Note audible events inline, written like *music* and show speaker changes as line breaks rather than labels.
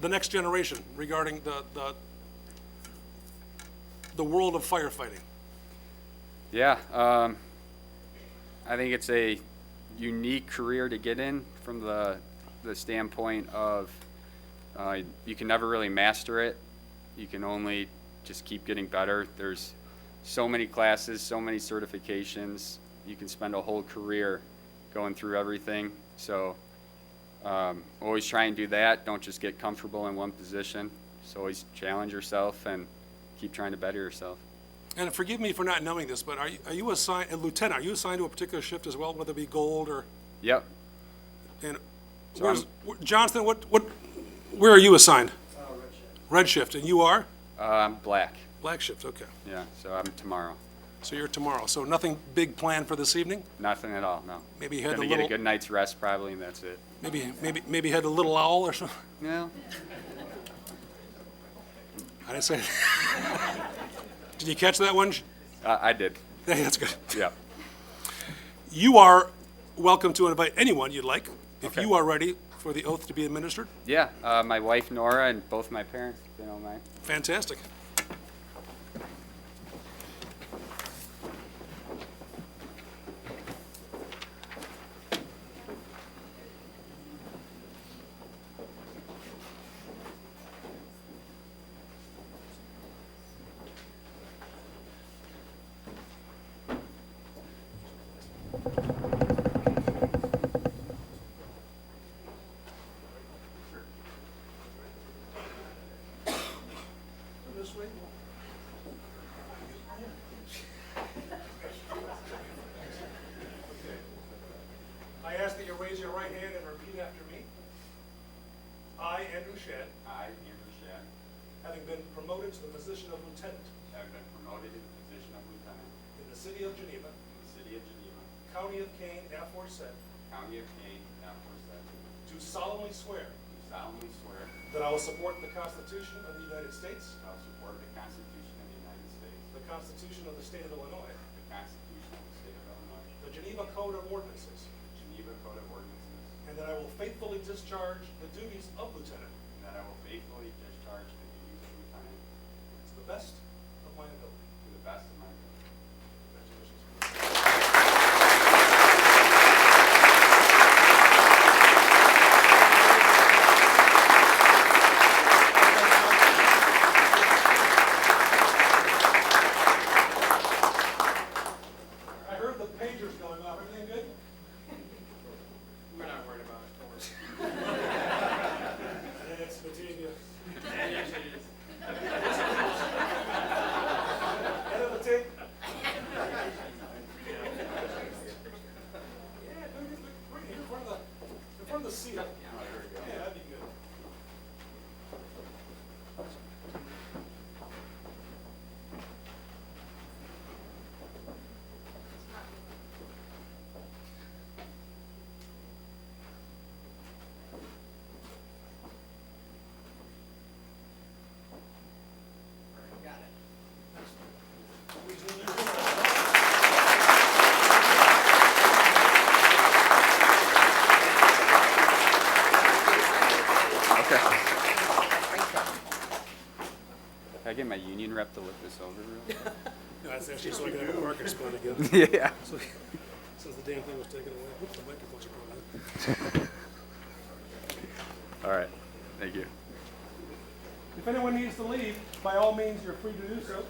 the next generation regarding the, the, the world of firefighting.
Yeah, um, I think it's a unique career to get in from the the standpoint of uh, you can never really master it. You can only just keep getting better. There's so many classes, so many certifications. You can spend a whole career going through everything. So um, always try and do that. Don't just get comfortable in one position. Just always challenge yourself and keep trying to better yourself.
And forgive me for not knowing this, but are, you- are you assigned, and lieutenant, are you assigned to a particular shift as well, whether it be gold or,
Yep.
and,
So
where's,
I'm-
where- Johnston, what, what, where are you assigned? Uh, Red shift, and you are?
Uh, I'm black.
Black shift, okay.
Yeah, so I'm tomorrow.
So you're tomorrow, so nothing big planned for this evening?
Nothing at all, no.
Maybe you had
Gonna
the
get a
little-
good night's rest probably, and that's it.
Maybe, maybe, maybe head a little owl or something? *laughs*
No,
I didn't say. *laughs* Did you catch that one?
I, I did,
Yeah, that's good.
yeah.
You are welcome to invite anyone you'd like, if
Okay.
you are ready for the oath to be administered.
Yeah, uh, my wife Nora and both my parents, if they don't mind.
Fantastic. I ask that you raise your right hand and repeat after me. I, Andrew Shad,
I, Andrew Shad,
having been promoted to the position of lieutenant
have been promoted to the position of lieutenant
in the city of Geneva,
in the city of Geneva,
county of Kane, aforesaid,
county of Kane, aforesaid, do
do solemnly swear
solemnly swear that
that I will support the Constitution of the United States,
I will support the Constitution of the United States,
the Constitution of the state of Illinois,
the Constitution of the state of Illinois,
the Geneva Code of Ordinances,
the Geneva Code of Ordinances,
and that I will faithfully discharge the duties of lieutenant
and that I will faithfully discharge the duties of lieutenant
to the best of my ability.
to the best of my ability.
I heard the pagers going off. Everything good?
We're not worried about it,
*laughs*
don't worry. *laughs*
Yeah, it's Batavia. End of the tape. Yeah, dude, it's right here in front of the, in front of the seat. Yeah, that'd be good.
Okay. Can I get my union rep to look this over real
No, that's actually so I can have a marker spot again,
quick? Yeah.
so- since the damn thing was taken away. Whoops, the microphone's are probably out.
All right, thank you.
If anyone needs to leave, by all means, you're free to do so.